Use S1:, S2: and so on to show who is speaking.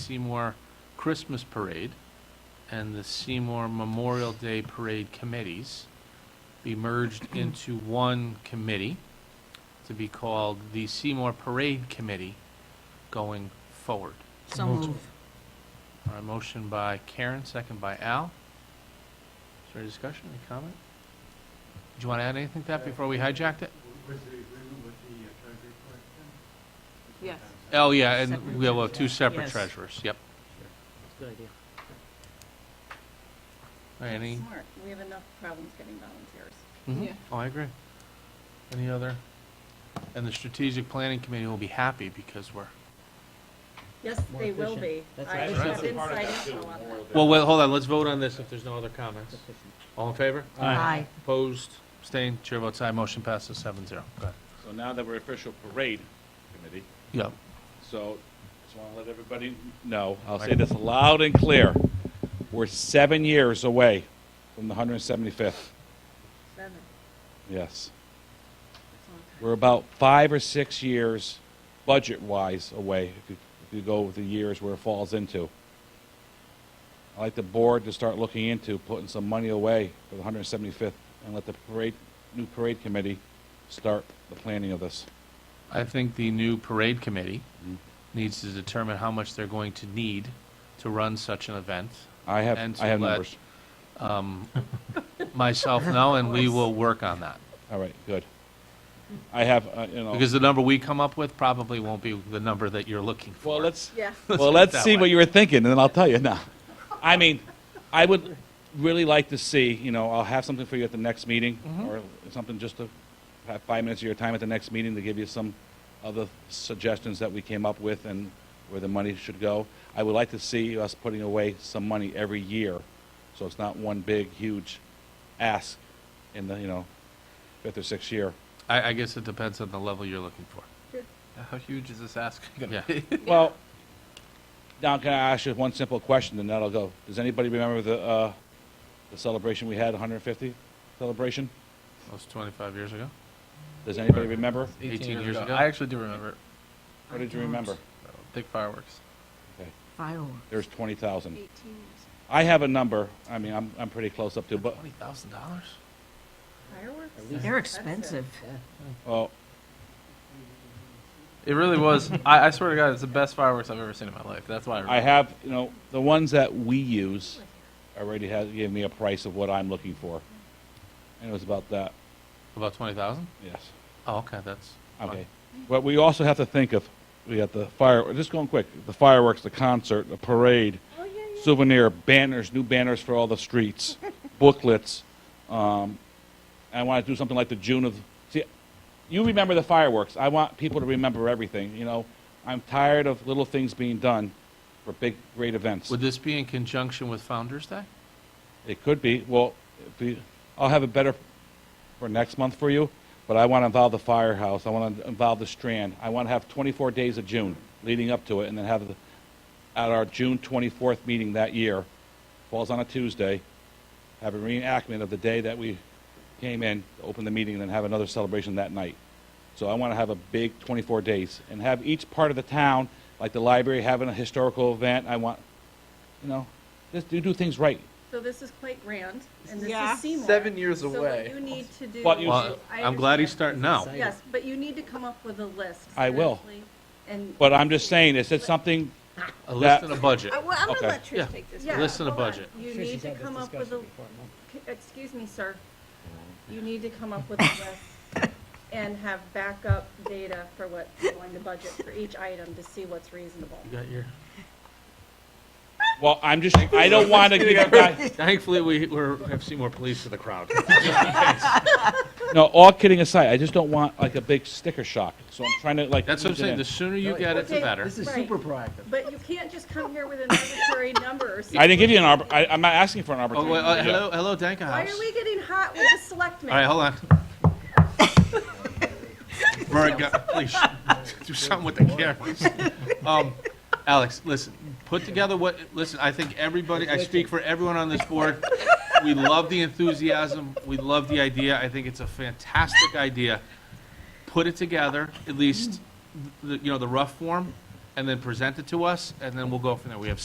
S1: Seymour Christmas Parade and the Seymour Memorial Day Parade committees be merged into one committee to be called the Seymour Parade Committee going forward.
S2: So
S3: Moved.
S2: move.
S1: All right, motion by Karen, second by Al. Is there any discussion, any comment? Do you want to add anything to that before we hijacked it?
S3: Was the agreement with the uh, treasury clerk then?
S2: Yes.
S1: Oh, yeah, and
S2: Separate
S1: we'll have two
S2: treasurers.
S1: separate
S2: Yes.
S1: treasurers, yep.
S2: Good idea.
S1: All right, Any?
S4: Smart, we have enough problems getting volunteers.
S1: Mhm.
S2: Yeah.
S1: Oh, I agree. Any other? And the strategic planning committee will be happy because we're,
S4: Yes,
S3: More
S4: they will be.
S3: efficient.
S4: I
S3: That's right.
S1: That's
S4: have
S1: right.
S4: inside info on that.
S1: well, wait, hold on, let's vote on this if there's no other comments. All in favor?
S2: Aye.
S1: Opposed, abstained, chair votes aye, motion passes seven zero. Go ahead.
S5: So now that we're official parade committee,
S1: Yep.
S5: so just want to let everybody know, I'll say this loud and clear. We're seven years away from the 175th.
S4: Seven, that's
S5: Yes.
S4: a long time.
S5: We're about five or six years, budget-wise, away, if you, if you go with the years where it falls into. I'd like the board to start looking into putting some money away for the 175th and let the parade, new parade committee start the planning of this.
S1: I think the new parade committee
S2: Mm-hmm.
S1: needs to determine how much they're going to need to run such an event.
S5: I have,
S1: And to
S5: I have
S1: let-
S5: numbers.
S1: Um, Myself, no, and we will work on that.
S5: All right, good. I have, uh, you know.
S1: Because the number we come up with probably won't be the number that you're looking for.
S5: Well, let's,
S4: Yeah,
S5: well,
S1: Let's put it
S5: let's
S1: that
S5: see
S1: way.
S5: what you were thinking, and then I'll tell you now. I mean, I would really like to see, you know, I'll have something for you at the next meeting, or something just to have five minutes of your time at the next meeting to give you some of the suggestions that we came up with and where the money should go. I would like to see us putting away some money every year, so it's not one big, huge ask in the, you know, fifth or sixth year.
S1: I, I guess it depends on the level you're looking for.
S3: How huge is this ask
S1: Yeah.
S3: gonna be?
S5: Well, now can I ask you one simple question, and that'll go. Does anybody remember the, uh, the celebration we had, 150 celebration?
S1: That was 25 years ago.
S5: Does anybody remember?
S1: 18 years ago.
S3: I actually do remember it.
S5: What did you remember?
S3: Big fireworks.
S5: Okay,
S2: Fireworks.
S5: There's 20,000.
S4: eighteen years.
S5: I have a number, I mean, I'm, I'm pretty close up to, but,
S1: $20,000?
S4: Fireworks?
S2: They're expensive.
S5: well,
S3: It really was, I, I swear to God, it's the best fireworks I've ever seen in my life. That's why I
S5: I
S3: remember.
S5: have, you know, the ones that we use already has, gave me a price of what I'm looking for. And it was about that,
S1: About 20,000?
S5: yes.
S1: Oh, okay, that's.
S5: Okay. But we also have to think of, we got the fire, just going quick, the fireworks, the concert, the parade,
S4: Oh, yeah, yeah.
S5: souvenir banners, new banners for all the streets, booklets. Um, I want to do something like the June of. See, you remember the fireworks. I want people to remember everything. You know, I'm tired of little things being done for big, great events.
S1: Would this be in conjunction with Founder's Day?
S5: It could be. Well, if we, I'll have it better for next month for you, but I want to involve the firehouse. I want to involve the Strand. I want to have 24 days of June leading up to it, and then have the, at our June 24th meeting that year, falls on a Tuesday, have a reenactment of the day that we came in, open the meeting, and then have another celebration that night. So I want to have a big 24 days and have each part of the town, like the library, having a historical event. I want, you know, just do, do things right.
S4: So this is quite grand, and this
S2: Yeah.
S4: is Seymour.
S3: Seven years
S4: So what
S3: away.
S4: you need to do.
S5: But you-
S1: Well,
S4: I
S1: I'm glad he's
S4: understand.
S1: starting now.
S4: Yes, but you need to come up with a list.
S5: I will.
S4: seriously, And.
S5: But I'm just saying, is it something,
S1: A list and a budget.
S6: Well, I'm
S5: Okay.
S6: gonna let
S1: Yeah.
S6: Trish take this.
S4: Yeah,
S6: one.
S1: list and a
S4: hold on.
S1: budget.
S4: You need to come up with a, C- excuse me, sir. You need to come up with a list and have backup data for what's going to budget for each item to see what's reasonable.
S1: You got your.
S5: well, I'm just, I don't want to give a guy,
S1: Thankfully, we, we're, have seen more police in the crowd.
S5: no, all kidding aside, I just don't want like a big sticker shock. So I'm trying to like.
S1: That's what I'm
S5: ease it
S1: saying,
S5: in.
S1: the sooner you get it, the
S4: Okay,
S1: better.
S7: This is
S4: Right.
S7: super proactive.
S4: But you can't just come here with an arbitrary number or
S5: I
S4: something.
S5: didn't give you an arbor, I, I'm not asking for an
S1: Oh, wait,
S5: arbitrary.
S1: uh, hello, hello, Danka
S4: Why
S1: House.
S4: are we getting hot with the
S1: All right,
S4: selectmen?
S1: hold on. Rory, go- uh, please, do something with the cameras. Um, Alex, listen, put together what, listen, I think everybody, I speak for everyone on this board. We love the enthusiasm, we love the idea, I think it's a fantastic idea. Put it together, at least, the, you know, the rough form, and and then present it to us, and then we'll go from there. We have